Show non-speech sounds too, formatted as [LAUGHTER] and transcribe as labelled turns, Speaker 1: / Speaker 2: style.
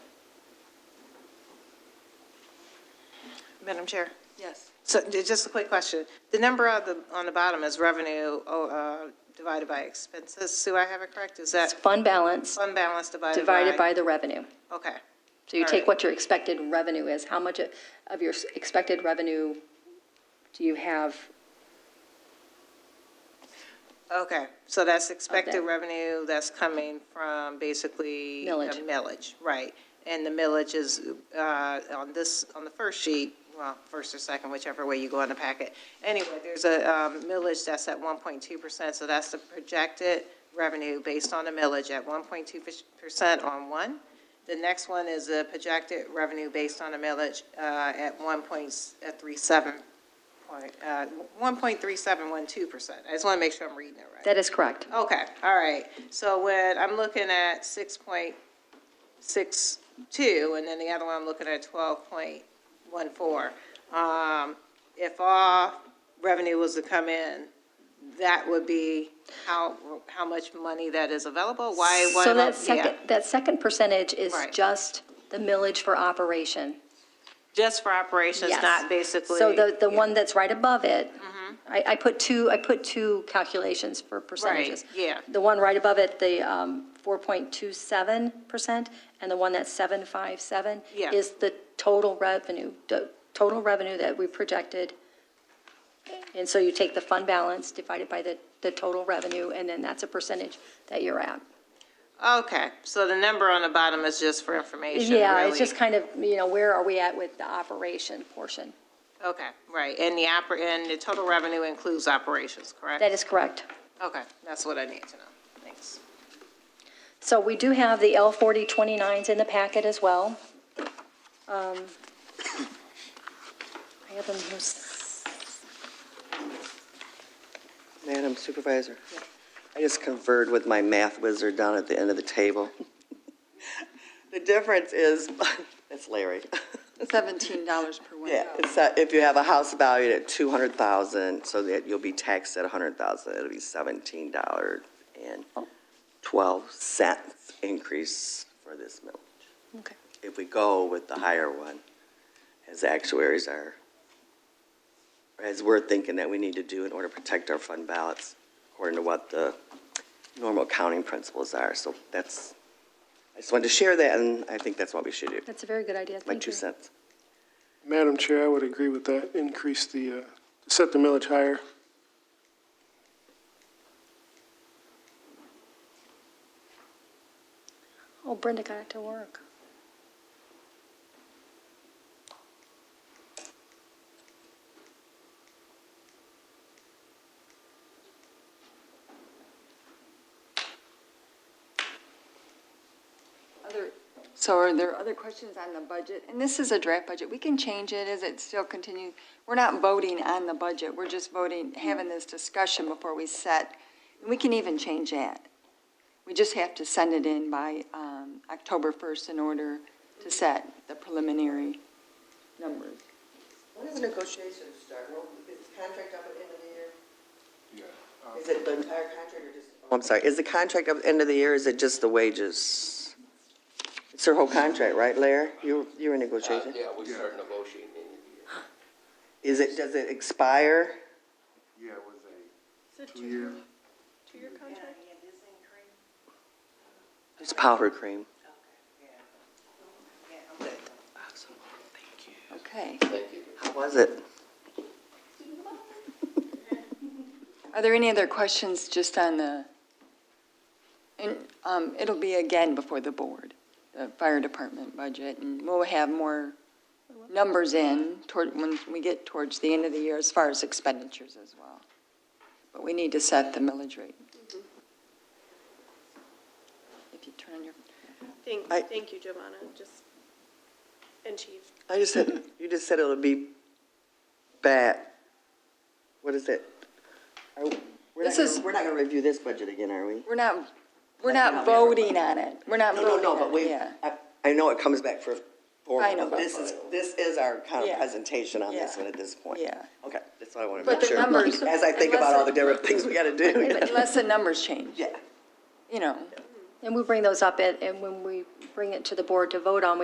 Speaker 1: Madam Chair.
Speaker 2: Yes.
Speaker 1: So j- just a quick question. The number on the, on the bottom is revenue oh, uh, divided by expenses. Do I have it correct? Is
Speaker 3: It's
Speaker 1: that
Speaker 3: fund balance
Speaker 1: fund balance divided by?
Speaker 3: divided by the revenue.
Speaker 1: Okay,
Speaker 3: So you
Speaker 1: All
Speaker 3: take
Speaker 1: right.
Speaker 3: what your expected revenue is, how much of your s- expected revenue do you have?
Speaker 1: okay. So that's expected
Speaker 3: Okay.
Speaker 1: revenue that's coming from basically. the
Speaker 3: Millage.
Speaker 1: Millage, right. And the millage is uh, on this, on the first sheet, well, first or second, whichever way you go in the packet. Anyway, there's a um, millage that's at 1.2%, so that's the projected revenue based on the millage at 1.2% on one. The next one is a projected revenue based on a millage uh, at 1.37, point, uh, 1.3712%. I just want to make sure I'm reading it right.
Speaker 3: That is correct.
Speaker 1: Okay, all right. So when I'm looking at six point six two, and then the other one I'm looking at twelve point one four. Um, if all revenue was to come in, that would be how, how much money that is available? Why, why?
Speaker 3: So
Speaker 1: not-
Speaker 3: that
Speaker 1: yeah,
Speaker 3: second, that second percentage is
Speaker 1: Right.
Speaker 3: just the millage for operation.
Speaker 1: Just for operations,
Speaker 3: Yes.
Speaker 1: not basically. Mm-hmm.
Speaker 3: So the, the one that's right above it, I, I put two, I put two calculations for percentages.
Speaker 1: yeah.
Speaker 3: The one right above it, the um, 4.27%, and the one that's 757
Speaker 1: Yeah.
Speaker 3: is the total revenue, the total revenue that we projected. And so you take the fund balance divided by the, the total revenue, and then that's a percentage that you're at.
Speaker 1: Okay, so the number on the bottom is just for information,
Speaker 3: Yeah,
Speaker 1: really.
Speaker 3: it's just kind of, you know, where are we at with the operation portion?
Speaker 1: Okay, right. And the oper, and the total revenue includes operations, correct?
Speaker 3: That is correct.
Speaker 1: Okay, that's what I need to know. Thanks.
Speaker 3: So we do have the L 4029s in the packet as well. Um, I have them here. s-
Speaker 4: Madam Supervisor, I just conferred with my math wizard down at the end of the table. [LAUGHS] The difference is, [LAUGHS] it's Larry. [LAUGHS]
Speaker 2: $17 per
Speaker 4: Yeah,
Speaker 2: window.
Speaker 4: it's that if you have a house valued at 200,000, so that you'll be taxed at 100,000, it'll be $17.12 increase for this millage.
Speaker 3: Okay.
Speaker 4: If we go with the higher one, as actuaries are, as we're thinking that we need to do in order to protect our fund balance, according to what the normal accounting principles are. So that's, I just wanted to share that, and I think that's what we should do,
Speaker 3: That's a very good idea.
Speaker 4: my
Speaker 3: Thank
Speaker 4: two
Speaker 3: you.
Speaker 4: cents.
Speaker 5: Madam Chair, I would agree with that. Increase the, uh, set the millage higher.
Speaker 3: Oh, Brenda got it to work.
Speaker 2: Other- So are there other questions on the budget? And this is a draft budget. We can change it as it still continues. We're not voting on the budget. We're just voting, having this discussion before we set. And we can even change that. We just have to send it in by um, October 1st in order to set the preliminary numbers.
Speaker 4: When does negotiations start? Well, is the contract up at the end of the year?
Speaker 5: um,
Speaker 4: Is it the entire contract or just? I'm sorry, is the contract up at the end of the year, or is it just the wages? It's her whole contract, right, Larry? You, you were
Speaker 6: Uh,
Speaker 4: negotiating?
Speaker 6: Yeah, we start negotiating in the year.
Speaker 4: Is it, does it expire?
Speaker 5: Yeah, it was a two-year.
Speaker 4: It's powder cream. Awesome. Thank you.
Speaker 2: Okay.
Speaker 6: Thank you.
Speaker 4: How was it?
Speaker 2: Are there any other questions just on the, and um, it'll be again before the board, the fire department budget, and we'll have more numbers in toward, when we get towards the end of the year as far as expenditures as well. But we need to set the millage rate.
Speaker 4: Mm-hmm.
Speaker 2: If you turn on your,
Speaker 7: Thank,
Speaker 4: I-
Speaker 7: thank you, Giovanna, just, and Chief.
Speaker 4: I just said, you just said it'll be bad. What is it? Are- we're not
Speaker 2: This
Speaker 4: gonna-
Speaker 2: is-
Speaker 4: We're not gonna review this budget again, are we?
Speaker 2: we're not, we're not
Speaker 4: Like not everybody.
Speaker 2: voting on it. We're not
Speaker 4: No, no,
Speaker 2: voting
Speaker 4: no,
Speaker 2: on
Speaker 4: but
Speaker 2: it,
Speaker 4: we,
Speaker 2: yeah.
Speaker 4: I, I know it comes back for, for,
Speaker 2: I know, but-
Speaker 4: this is, this is our kind
Speaker 2: Yeah.
Speaker 4: of presentation on this
Speaker 2: Yeah.
Speaker 4: one at this point.
Speaker 2: Yeah.
Speaker 4: Okay, that's what I want to
Speaker 2: But
Speaker 4: make
Speaker 2: the
Speaker 4: sure.
Speaker 2: numbers-
Speaker 4: As I think about all the different things we gotta [LAUGHS] do.
Speaker 2: Unless the numbers change,
Speaker 4: Yeah.
Speaker 2: you know.
Speaker 3: And we bring those up at, and when we bring it to the board to vote on, we